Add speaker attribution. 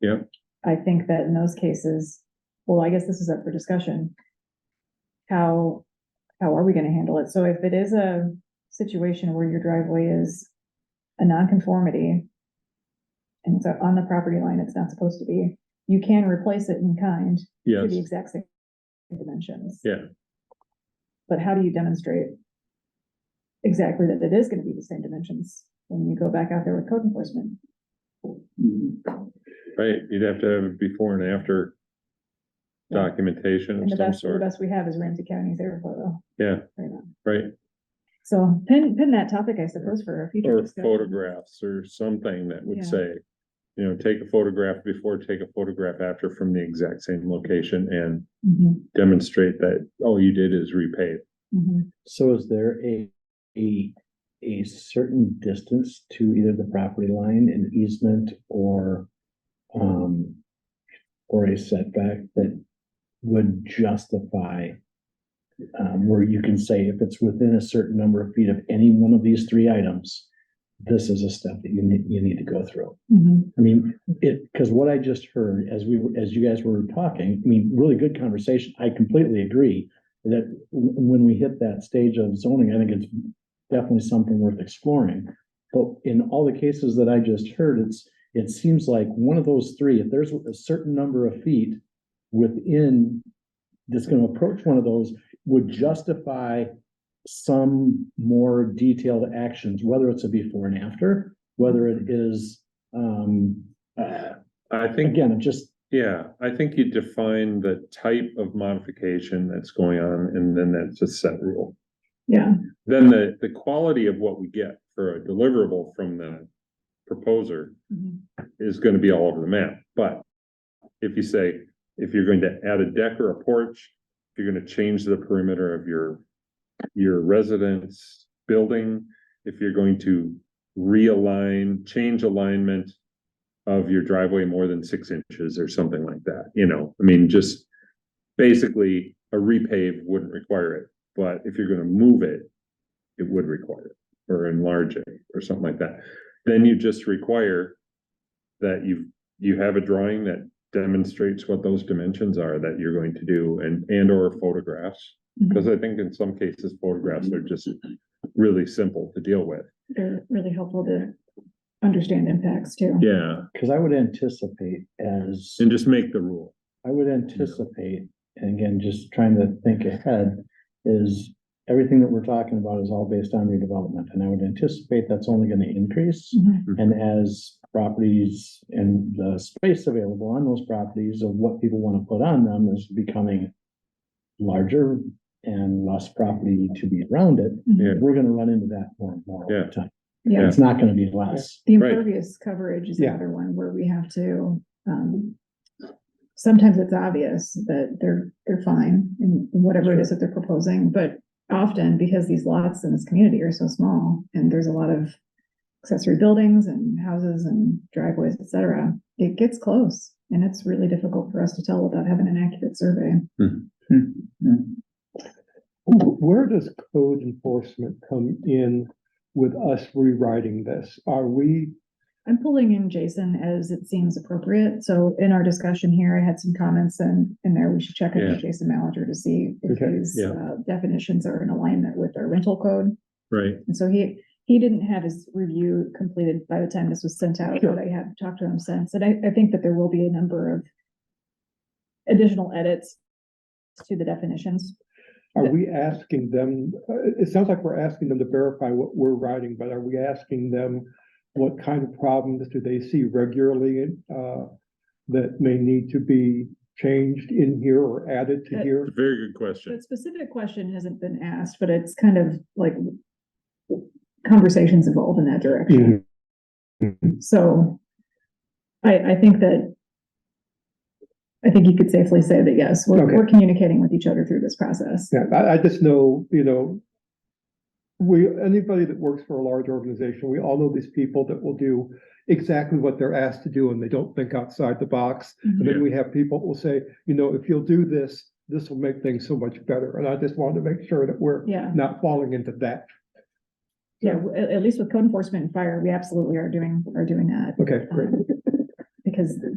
Speaker 1: Yep.
Speaker 2: I think that in those cases, well, I guess this is up for discussion. How, how are we gonna handle it? So if it is a situation where your driveway is a nonconformity and it's on the property line, it's not supposed to be, you can replace it in kind to
Speaker 1: Yes,
Speaker 2: the exact same dimensions.
Speaker 1: Yeah.
Speaker 2: But how do you demonstrate exactly that it is gonna be the same dimensions when you go back out there with code enforcement?
Speaker 1: right, you'd have to have a before and after documentation
Speaker 2: And the
Speaker 1: of some
Speaker 2: best, the
Speaker 1: sort,
Speaker 2: best we have is Ramsey County's air photo.
Speaker 1: Yeah.
Speaker 2: Right now.
Speaker 1: right?
Speaker 2: So pin, pin that topic, I suppose, for a future
Speaker 1: Or
Speaker 2: discussion.
Speaker 1: photographs or something that
Speaker 2: Yeah.
Speaker 1: would say, you know, take a photograph before, take a photograph after from the exact same location and
Speaker 2: Mhm,
Speaker 1: demonstrate that all you did is repave.
Speaker 2: mhm.
Speaker 3: So is there a, a, a certain distance to either the property line, an easement or, um, or a setback that would justify, um, where you can say if it's within a certain number of feet of any one of these three items, this is a step that you need, you need to go through.
Speaker 2: Mhm.
Speaker 3: I mean, it, because what I just heard as we, were- as you guys were talking, I mean, really good conversation. I completely agree that w- when we hit that stage of zoning, I think it's definitely something worth exploring. But in all the cases that I just heard, it's, it seems like one of those three, if there's a certain number of feet within that's gonna approach one of those, would justify some more detailed actions, whether it's a before and after, whether it is um, uh,
Speaker 1: I think,
Speaker 3: again, it just,
Speaker 1: yeah, I think you define the type of modification that's going on and then that's a set rule.
Speaker 2: Yeah,
Speaker 1: Then the, the quality of what we get for a deliverable from the proposer
Speaker 2: mhm,
Speaker 1: is gonna be all over the map, but if you say, if you're going to add a deck or a porch, if you're gonna change the perimeter of your, your residence building, if you're going to realign, change alignment of your driveway more than six inches or something like that, you know, I mean, just basically, a repave wouldn't require it, but if you're gonna move it, it would require it, or enlarge it, or something like that. Then you just require that you, you have a drawing that demonstrates what those dimensions are that you're going to do and, and or photographs.
Speaker 2: mhm.
Speaker 1: Cause I think in some cases photographs are just really simple to deal with.
Speaker 2: They're really helpful to understand impacts too.
Speaker 1: Yeah,
Speaker 3: because I would anticipate as,
Speaker 1: and just make the rule.
Speaker 3: I would anticipate, and again, just trying to think ahead, is everything that we're talking about is all based on redevelopment, and I would anticipate that's only going to increase.
Speaker 2: Mhm,
Speaker 3: And as properties and the space available on those properties of what people want to put on them is becoming larger and less property to be around it,
Speaker 2: mhm.
Speaker 3: we're going to run into that more and more
Speaker 1: Yeah.
Speaker 3: over time.
Speaker 2: Yeah,
Speaker 3: It's not going to be less.
Speaker 2: the
Speaker 1: Right.
Speaker 2: impervious coverage is another one where we have to, um, sometimes it's obvious that they're, they're fine in whatever it is that they're proposing, but often because these lots in this community are so small and there's a lot of accessory buildings and houses and driveways, et cetera, it gets close. And it's really difficult for us to tell without having an accurate survey.
Speaker 3: Hmm,
Speaker 4: Where does code enforcement come in with us rewriting this? Are we,
Speaker 2: I'm pulling in Jason as it seems appropriate. So in our discussion here, I had some comments and in there, we should check in
Speaker 1: Yeah.
Speaker 2: with Jason Malinger to see if
Speaker 4: Okay,
Speaker 2: these
Speaker 1: yeah.
Speaker 2: uh, definitions are in alignment with our rental code.
Speaker 1: Right.
Speaker 2: And so he, he didn't have his review completed by the time this was sent out, but I have talked to him since. And I, I think that there will be a number of additional edits to the definitions.
Speaker 4: are we asking them, uh, it sounds like we're asking them to verify what we're writing, but are we asking them what kind of problems do they see regularly uh, that may need to be changed in here or added to
Speaker 2: Uh,
Speaker 4: here?
Speaker 1: Very good
Speaker 2: The
Speaker 1: question.
Speaker 2: specific question hasn't been asked, but it's kind of like conversations evolve in that direction. So I, I think that I think you could safely say that, yes, we're,
Speaker 4: Okay.
Speaker 2: we're communicating with each other through this process.
Speaker 4: Yeah, I, I just know, you know, we, anybody that works for a large organization, we all know these people that will do exactly what they're asked to do and they don't think outside the box.
Speaker 2: Mm-hmm.
Speaker 4: And
Speaker 1: Yeah.
Speaker 4: then we have people who will say, you know, if you'll do this, this will make things so much better. And I just wanted to make sure that we're
Speaker 2: Yeah,
Speaker 4: not falling into that.
Speaker 2: yeah, w- at, at least with code enforcement and fire, we absolutely are doing, are doing that.
Speaker 4: Okay, great.
Speaker 2: um, Because